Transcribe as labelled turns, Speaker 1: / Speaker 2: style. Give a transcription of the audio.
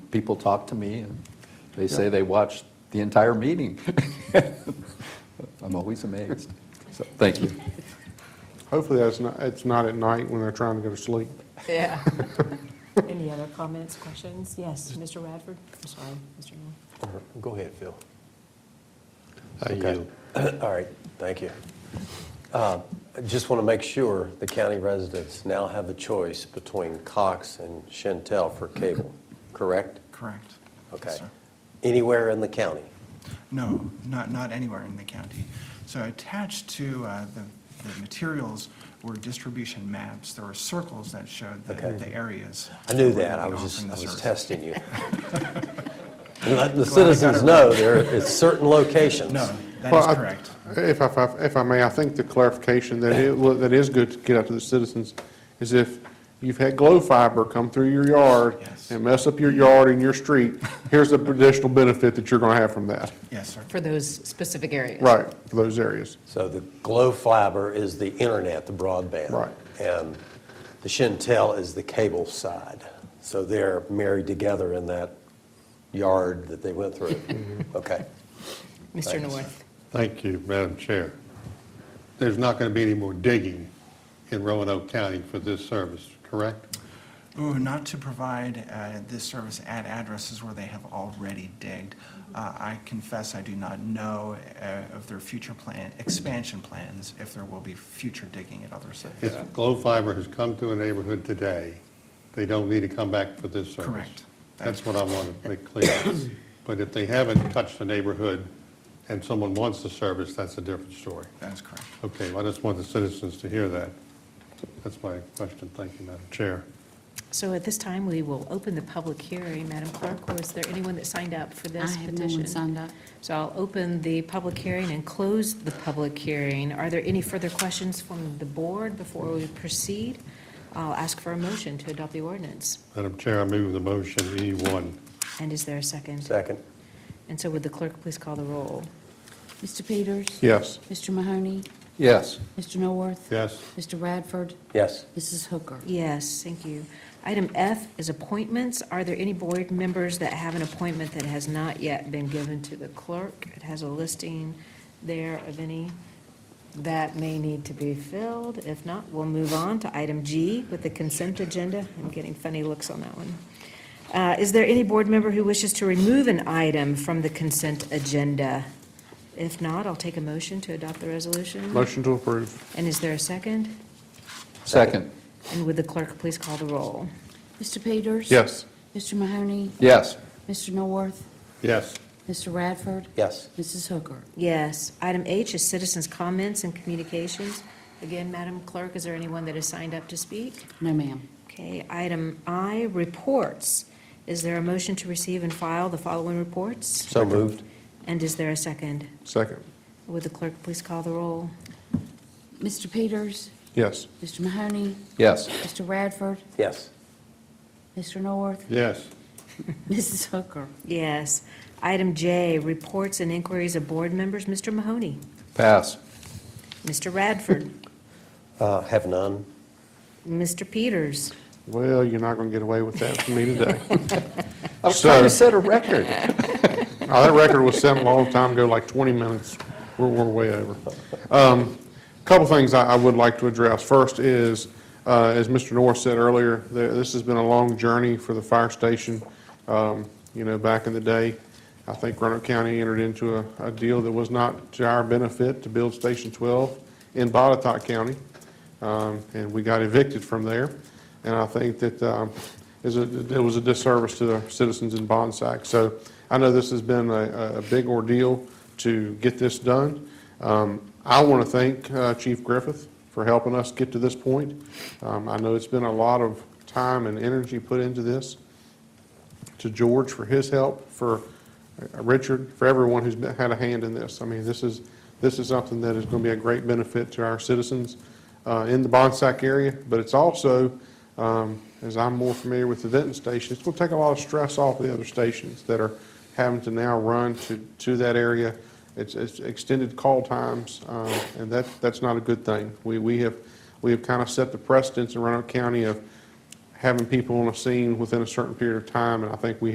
Speaker 1: people talk to me, and they say they watched the entire meeting. I'm always amazed. So, thank you.
Speaker 2: Hopefully that's not, it's not at night when they're trying to go to sleep.
Speaker 3: Yeah.
Speaker 4: Any other comments, questions? Yes, Mr. Radford? I'm sorry, Mr. Moore.
Speaker 5: Go ahead, Phil.
Speaker 6: I
Speaker 5: Okay.
Speaker 6: yield.
Speaker 5: All right, thank you. Uh, I just want to make sure the county residents now have a choice between Cox and Chantel for cable, correct?
Speaker 7: Correct.
Speaker 5: Okay.
Speaker 7: Sir.
Speaker 5: Anywhere in the county?
Speaker 7: No, not, not anywhere in the county. So attached to uh, the, the materials were distribution maps. There were circles that showed the,
Speaker 5: Okay.
Speaker 7: the areas.
Speaker 5: I knew
Speaker 7: where we'd
Speaker 5: that, I
Speaker 7: be
Speaker 5: was
Speaker 7: offering
Speaker 5: just, I
Speaker 7: the
Speaker 5: was
Speaker 7: service.
Speaker 5: testing you. And Let the
Speaker 7: Glad I got it
Speaker 5: citizens
Speaker 7: right.
Speaker 5: know there, it's certain locations.
Speaker 7: No, that
Speaker 2: Well, I-
Speaker 7: is correct.
Speaker 2: If I, if I- if I may, I think the clarification that it, wa- that is good to get out to the citizens is if you've had glow fiber come through your yard
Speaker 7: Yes.
Speaker 2: and mess up your yard and your street, here's the additional benefit that you're going to have from that.
Speaker 7: Yes, sir.
Speaker 3: For those specific areas.
Speaker 2: Right, for those areas.
Speaker 5: So the Glow Fiber is the internet, the broadband.
Speaker 2: Right.
Speaker 5: And the Shentel is the cable side. So they're married together in that yard that they went through. Okay.
Speaker 3: Mr. North.
Speaker 6: Thank you, Madam Chair. There's not going to be any more digging in Roanoke County for this service, correct?
Speaker 7: Ooh, not to provide uh, this service at addresses where they have already digged. Uh, I confess I do not know uh, of their future plan, expansion plans, if there will be future digging at other sites.
Speaker 6: If Glow Fiber has come to a neighborhood today, they don't need to come back for this service.
Speaker 7: Correct.
Speaker 6: That's what I want to make clear. But if they haven't touched the neighborhood and someone wants the service, that's a different story.
Speaker 7: That is correct.
Speaker 6: Okay, well, I just want the citizens to hear that. That's my question. Thank you, Madam Chair.
Speaker 3: So at this time, we will open the public hearing. Madam Clerk, was there anyone that signed up for
Speaker 8: I
Speaker 3: this
Speaker 8: have no one
Speaker 3: petition?
Speaker 8: signed up.
Speaker 3: So I'll open the public hearing and close the public hearing. Are there any further questions from the board before we proceed? I'll ask for a motion to adopt the ordinance.
Speaker 6: Madam Chair, I move the motion E E1.
Speaker 3: And is there a second?
Speaker 5: Second?
Speaker 3: And so would the clerk please call the roll?
Speaker 8: Mr. Peters?
Speaker 2: Yes.
Speaker 8: Mr. Mahoney?
Speaker 1: Yes.
Speaker 8: Mr. Norworth?
Speaker 6: Yes?
Speaker 8: Mr. Radford?
Speaker 5: Yes.
Speaker 8: Mrs. Hooker?
Speaker 3: Yes, thank you. Item F is appointments. Are there any board members that have an appointment that has not yet been given to the clerk? It has a listing there of any that may need to be filled. If not, we'll move on to item G with the consent agenda. I'm getting funny looks on that one. Uh, Is there any board member who wishes to remove an item from the consent agenda? If not, I'll take a motion to adopt the resolution.
Speaker 2: Motion to approve.
Speaker 3: And is there a second?
Speaker 1: Second.
Speaker 3: And would the clerk please call the roll?
Speaker 8: Mr. Peters?
Speaker 2: Yes.
Speaker 8: Mr. Mahoney?
Speaker 1: Yes.
Speaker 8: Mr. Norworth?
Speaker 6: Yes.
Speaker 8: Mr. Radford?
Speaker 5: Yes.
Speaker 8: Mrs. Hooker?
Speaker 3: Yes. Item H is citizens' comments and communications. Again, Madam Clerk, is there anyone that has signed up to speak?
Speaker 8: No, ma'am.
Speaker 3: Okay, item I, reports. Is there a motion to receive and file the following reports?
Speaker 5: So moved?
Speaker 3: And is there a second?
Speaker 2: Second.
Speaker 3: Would the clerk please call the roll?
Speaker 8: Mr. Peters?
Speaker 2: Yes.
Speaker 8: Mr. Mahoney?
Speaker 1: Yes.
Speaker 8: Mr. Radford?
Speaker 5: Yes.
Speaker 8: Mr. Norworth?
Speaker 6: Yes.
Speaker 8: Mrs. Hooker?
Speaker 3: Yes. Item J, reports and inquiries of board members. Mr. Mahoney?
Speaker 1: Pass.
Speaker 3: Mr. Radford?
Speaker 5: Uh, Have none?
Speaker 3: Mr. Peters?
Speaker 2: Well, you're not going to get away with that from me today.
Speaker 1: I was trying to
Speaker 2: So-
Speaker 1: set a record.
Speaker 2: Now, Uh, that record was set a long time ago, like 20 minutes. We're, we're way over. Um, Couple things I, I would like to address. First is, uh, as Mr. Norris said earlier, there, this has been a long journey for the fire station. Um, you know, back in the day, I think Roanoke County entered into a, a deal that was not to our benefit to build Station 12 in Botetourt County um, and we got evicted from there. And I think that um, is a- it was a disservice to the citizens in Bonsack. So I know this has been a, a big ordeal to get this done. Um, I want to thank uh, Chief Griffith for helping us get to this point. Um, I know it's been a lot of time and energy put into this to George for his help, for uh, Richard, for everyone who's been- had a hand in this. I mean, this is, this is something that is going to be a great benefit to our citizens uh, in the Bonsack area, but it's also, um, as I'm more familiar with the Denton station, it's going to take a lot of stress off the other stations that are having to now run to, to that area. It's, it's extended call times, um, and that, that's not a good thing. We, we have, we have kind of set the precedence in Roanoke County of having people on a scene within a certain period of time, and I think we